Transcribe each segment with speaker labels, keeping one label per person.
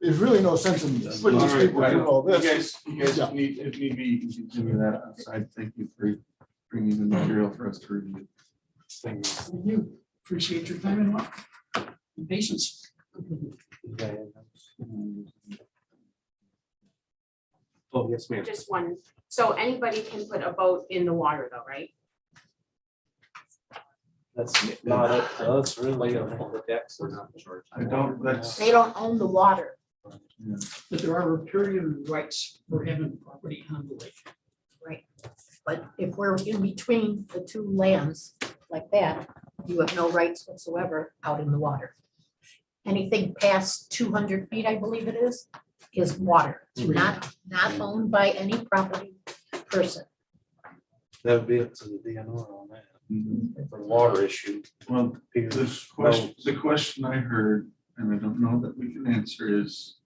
Speaker 1: there's really no sense in putting these people through all
Speaker 2: You
Speaker 1: this.
Speaker 2: guys, you guys
Speaker 1: Yeah.
Speaker 2: need, if need be, you should do that outside. Thank you for bringing the material for us to review.
Speaker 3: Thank You appreciate your time and luck and patience.
Speaker 4: Oh, yes, ma'am.
Speaker 5: Just one, so anybody can put a boat in the water though, right?
Speaker 4: That's not up to us really on the decks or not.
Speaker 2: I don't, that's.
Speaker 6: They don't own the water.
Speaker 2: yeah.
Speaker 3: But there are riparian rights for having property on the lake.
Speaker 6: But if we're in between the two lands like that, you have no rights whatsoever out in the water. Anything past two hundred feet, I believe it is, is water,
Speaker 2: Mm-hmm.
Speaker 6: not, not owned by any property person.
Speaker 4: That would be up to the DNR on that.
Speaker 2: Mhm.
Speaker 4: For the water issue.
Speaker 2: Well, this question, the question I heard, and I don't know that we can answer is,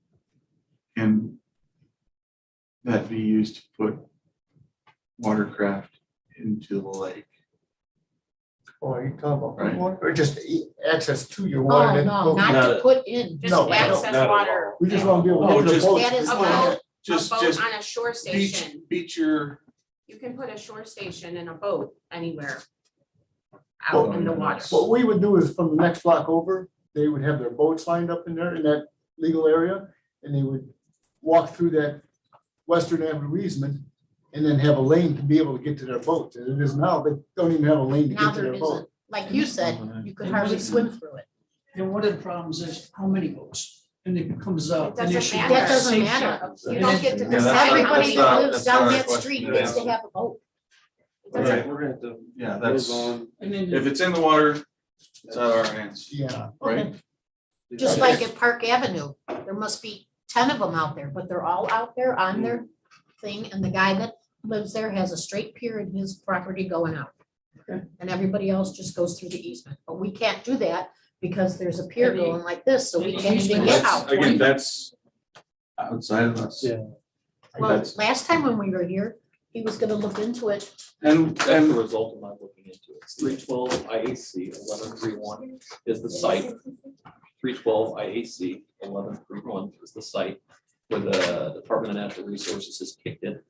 Speaker 2: can that be used to put watercraft into the lake?
Speaker 1: Oh, you talking
Speaker 2: Right.
Speaker 1: about, or just e- access to your water.
Speaker 6: Oh,
Speaker 1: then
Speaker 6: no,
Speaker 1: go-
Speaker 6: not to
Speaker 4: No.
Speaker 6: put in.
Speaker 5: Just
Speaker 1: No,
Speaker 5: access
Speaker 4: no.
Speaker 5: water.
Speaker 1: We just want to be able to.
Speaker 2: Oh,
Speaker 1: get to the
Speaker 2: just-
Speaker 1: boat.
Speaker 6: That is
Speaker 5: A
Speaker 6: allowed.
Speaker 5: boat, a
Speaker 2: Just,
Speaker 5: boat
Speaker 2: just
Speaker 5: on a shore
Speaker 2: beach,
Speaker 5: station,
Speaker 2: beach your,
Speaker 5: you can put a shore station and a boat anywhere. Out in the water.
Speaker 1: What we would do is from the next block over, they would have their boats lined up in there in that legal area. And they would walk through that Western Avenue easement and then have a lane to be able to get to their boat. As it is now, they don't even have a lane to
Speaker 6: Now
Speaker 1: get to
Speaker 6: there
Speaker 1: their boat.
Speaker 6: isn't, like you said, you could hardly
Speaker 5: Mm-hmm.
Speaker 6: swim through it.
Speaker 3: And one of the problems is how many boats, and it becomes a.
Speaker 5: It
Speaker 3: an
Speaker 5: doesn't
Speaker 3: issue
Speaker 5: matter.
Speaker 3: with
Speaker 6: That doesn't
Speaker 3: safety.
Speaker 6: matter.
Speaker 5: You don't get to
Speaker 2: Yeah,
Speaker 5: decide.
Speaker 2: that's-
Speaker 6: Everybody who
Speaker 2: not-
Speaker 6: lives
Speaker 2: that's
Speaker 6: down
Speaker 2: not a
Speaker 6: that
Speaker 2: question
Speaker 6: street
Speaker 2: to
Speaker 6: needs to
Speaker 2: answer.
Speaker 6: have a boat.
Speaker 5: It doesn't-
Speaker 2: right, we're gonna have to, yeah, that's,
Speaker 4: Move on.
Speaker 3: And then.
Speaker 2: if it's in the water, it's out of our hands,
Speaker 1: Yeah.
Speaker 2: right?
Speaker 6: Just like at Park Avenue, there must be ten of them out there, but they're all out there on their thing, and the guy that lives there has a straight pier in his property going out.
Speaker 3: Okay.
Speaker 6: And everybody else just goes through the easement, but we can't do that because there's a pier
Speaker 3: Any-
Speaker 6: going like this, so we
Speaker 3: any
Speaker 6: can't even
Speaker 3: easement
Speaker 6: get
Speaker 3: that's-
Speaker 6: out.
Speaker 2: Again, that's outside of us.
Speaker 4: Yeah.
Speaker 6: Well,
Speaker 2: That's-
Speaker 6: last time when we were here, he was gonna look into it,
Speaker 2: And,
Speaker 7: That's the
Speaker 2: and
Speaker 7: result of my looking into it. Three twelve IAC eleven three one is the site. Three twelve IAC eleven three one is the site where the Department of Natural Resources has kicked in.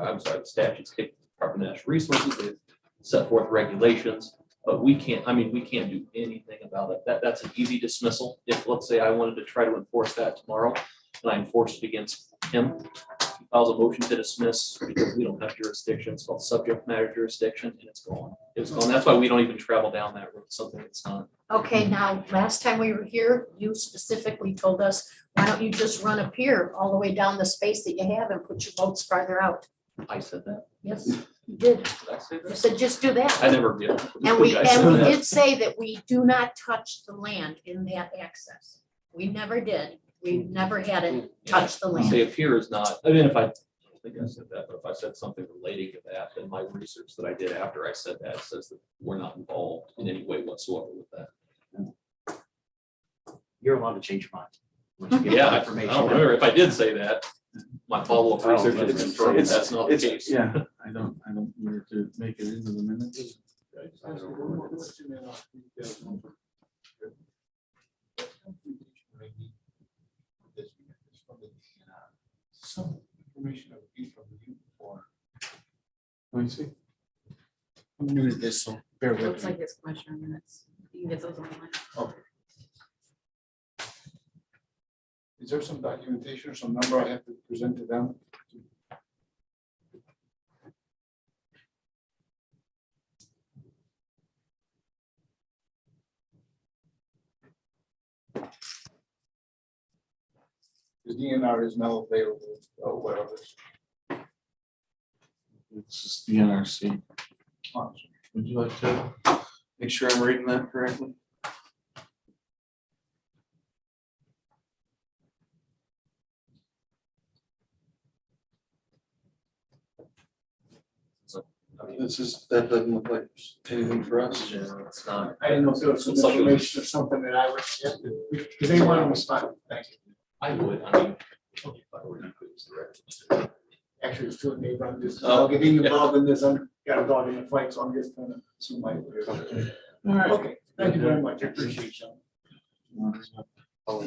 Speaker 7: I'm sorry, the statute's kicked the Department of Natural Resources, they've set forth regulations, but we can't, I mean, we can't do anything about it. That, that's an easy dismissal. If, let's say, I wanted to try to enforce that tomorrow and I enforced it against him, files a motion to dismiss because we don't have jurisdiction. It's called subject matter jurisdiction and it's gone. It's gone. That's why we don't even travel down that road, something that's not.
Speaker 6: Okay, now, last time we were here, you specifically told us, why don't you just run a pier all the way down the space that you have and put your boats farther out?
Speaker 7: I said that.
Speaker 6: Yes, you did.
Speaker 7: Did I say
Speaker 6: You
Speaker 7: that?
Speaker 6: said just do
Speaker 7: I
Speaker 6: that.
Speaker 7: never did.
Speaker 6: And we,
Speaker 7: I said
Speaker 6: and we
Speaker 7: that.
Speaker 6: did say that we do not touch the land in that access. We never did. We never had it touch the land.
Speaker 7: Say a pier is not, I mean, if I, I don't think I said that, but if I said something relating to that, then my research that I did after I said that says that we're not involved in any way whatsoever with that.
Speaker 8: you're allowed to change your mind. once you get
Speaker 7: Yeah,
Speaker 8: that
Speaker 7: I I
Speaker 8: information.
Speaker 7: don't remember if I did say that. My follow-up
Speaker 2: Oh,
Speaker 7: research is
Speaker 2: it's-
Speaker 7: confirmed
Speaker 2: it's-
Speaker 7: that's not the
Speaker 2: it's,
Speaker 7: case.
Speaker 2: yeah, I don't, I don't need to make it into the minutes. Some information that would be from you for. Let me see.
Speaker 8: I'm new to this, so bear with me.
Speaker 5: it's commissioner minutes. You can get those online.
Speaker 2: Is there some documentation or some number I have to present to them? The DNR is now available, or whatever. It's just the NRC. Would you like to make sure I'm reading that correctly?
Speaker 7: I mean,
Speaker 2: This is, that doesn't look like anything for us.
Speaker 7: It's not.
Speaker 1: I didn't know if there was some
Speaker 7: It's like it was-
Speaker 1: information or something that I would, have to- because they want to respond, thank you.
Speaker 7: I would, I mean. if I were to put this directly.
Speaker 1: Actually, it's two neighbor, I'm just, I'll get involved in this, I'm got a dog in the fight, so I'm just kind of, so my.
Speaker 2: All right.
Speaker 1: Okay, thank you very much, I appreciate you.